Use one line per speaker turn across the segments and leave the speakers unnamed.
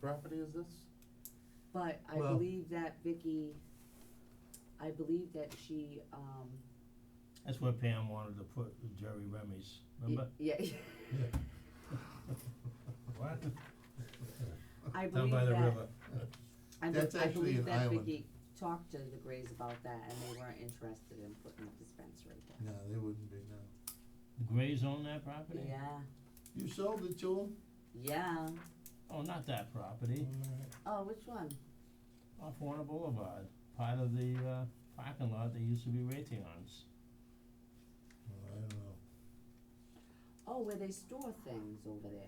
property is this?
But I
Well-
believe that Vicky, I believe that she, um,
That's where Pam wanted to put Jerry Remy's,
y-
remember?
yeah,
What?
I
Down
believe
by the
that,
river.
I be-
That's
I
actually
believe
an
that
island.
Vicky talked to the Grays about that and they weren't interested in putting a dispensary there.
No, they wouldn't be, no.
The Grays own that property?
Yeah,
You sold it to them?
yeah,
Oh, not that property,
oh, which one?
off Warner Boulevard, part of the uh parking lot that used to be Raytheon's.
Well, I don't know.
Oh, where they store things over there,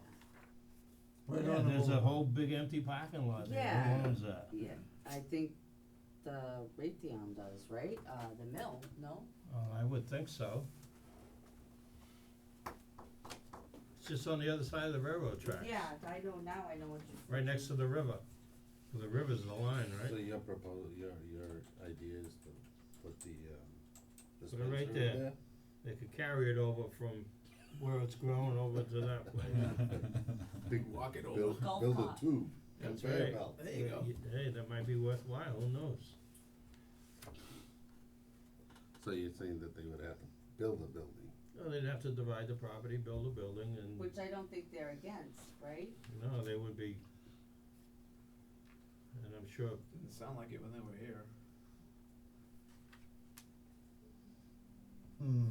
Right
Yeah,
on the
there's a
boulevard.
whole big empty parking lot there,
Yeah.
who owns that?
yeah, I think the Raytheon does, right, uh, the mill, no?
Oh, I would think so. It's just on the other side of the railroad tracks.
I know, now I know what you.
Right next to the river, the river's the line,
So
right?
your proposal, your, your idea is to put the, um,
Put it right
dispensary
there.
there?
They could carry it over from where it's grown over to that place.
Big walk it over.
Golf
Build a
cart.
tube,
That's
conveyor
right.
belt.
Hey, that might be worthwhile, who knows?
So you're saying that they would have to build a building?
Well, they'd have to divide the property, build a building and,
Which I don't think they're against, right?
no, they would be. And I'm sure,
Didn't sound like it when they were here.
Hmm,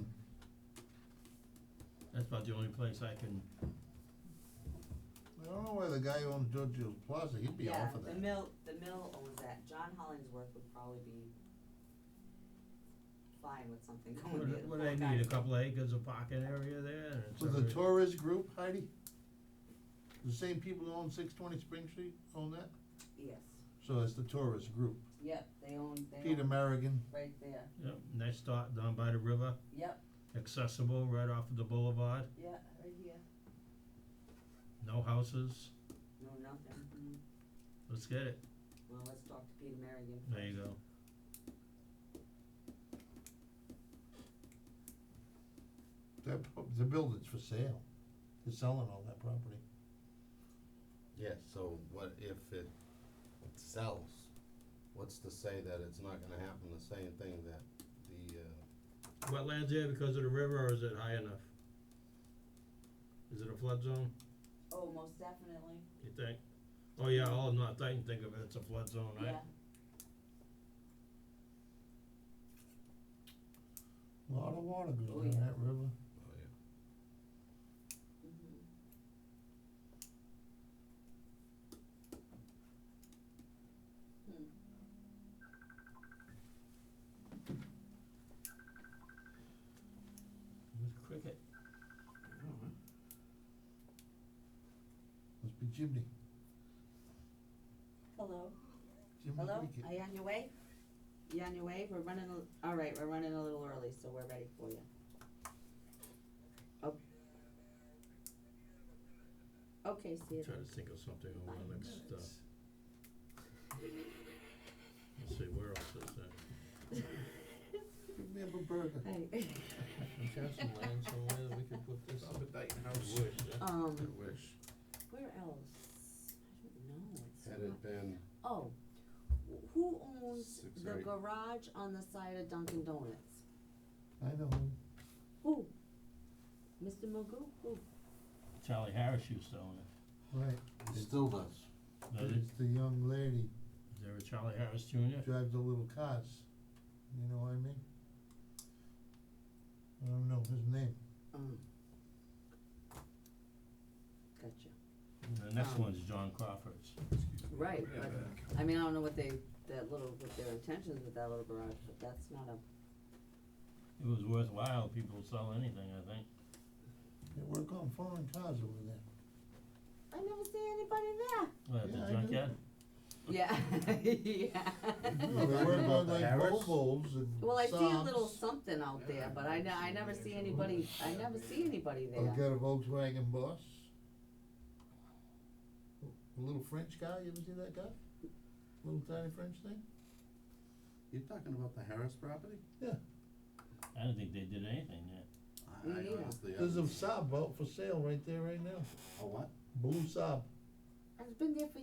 that's about the only place I can,
I don't know why the guy who owns Giorgio's Plaza, he'd be
Yeah,
off of that.
the mill, the mill owns that, John Hollingsworth would probably be fine with something going
what,
in.
what I need, a couple acres of parking area there and it's.
Was the
already-
Torres Group, Heidi? The same people who own six twenty Spring Street own that?
Yes,
So that's the Torres Group.
yep, they own, they
Peter
own
Marigan,
right there,
Yep, nice dot down by the river,
yep,
accessible right off of the boulevard,
yeah, right here,
no houses,
no, nothing, mm,
let's get it,
well, let's talk to Peter Marion.
there you go.
that, pro- the building's for sale. They're selling all that property.
Yeah, so what if it sells? What's to say that it's not gonna happen the same thing that the, uh,
Wetlands there because of the river or is it high enough? Is it a flood zone,
Oh, most definitely,
you think? Oh yeah, all of North Dayton think of it, it's a flood zone, right?
yeah,
A Lot of water
Oh,
goes down
yeah.
that river.
oh yeah.
mhm. Hmm.
Who's cricket?
Oh,
Must be Jimmy.
Hello?
Jimmy
Hello,
Cricket.
are you on your way? You on your way? We're running, a- all right, we're running a little early, so we're ready for you. Oh. Okay, see you
Try
then.
to think of something over the next, uh. Let's see, where else is that?
Give me a burger.
Hey,
Is there some land somewhere that we could put this?
Up at Dyton House.
Wood, yeah.
um,
I wish,
where else? I don't know, it's
had
not,
it been,
oh, wh- who owns
Six or
the
eight.
garage on the side of Dunkin' Donuts?
I know him.
Who? Mr. Magoo, who?
Charlie Harris used to own it.
Right.
it still does.
Is it-
It's the young lady
is there a Charlie Harris Junior?
drives the little cars. You know what I mean? I don't know his name.
Um. Gotcha.
The next
Um,
one's John Crawford's.
Right,
Yeah,
but
back.
I mean, I don't know what they, that little, what their intentions with that little garage, but that's not a,
It was worthwhile, people would sell anything, I think.
They work on foreign cars over there.
I never see anybody there.
Well, at
Yeah, I
the
do.
junkyard,
Yeah, yeah.
No, they
talking
work
about
on
the
like
Harris?
Volvos and
Well, I see a little
Saabs.
something out there, but I ne- I never see anybody, I never see anybody
I've
there.
got a Volkswagen Boss. A little French guy, you ever see that guy? Little tiny French thing?
You're talking about the Harris property?
I don't think they did anything yet.
I
Me neither.
honestly, I
There's a
haven't-
Saab out for sale right there right now,
A what?
blue Saab.
It's been there for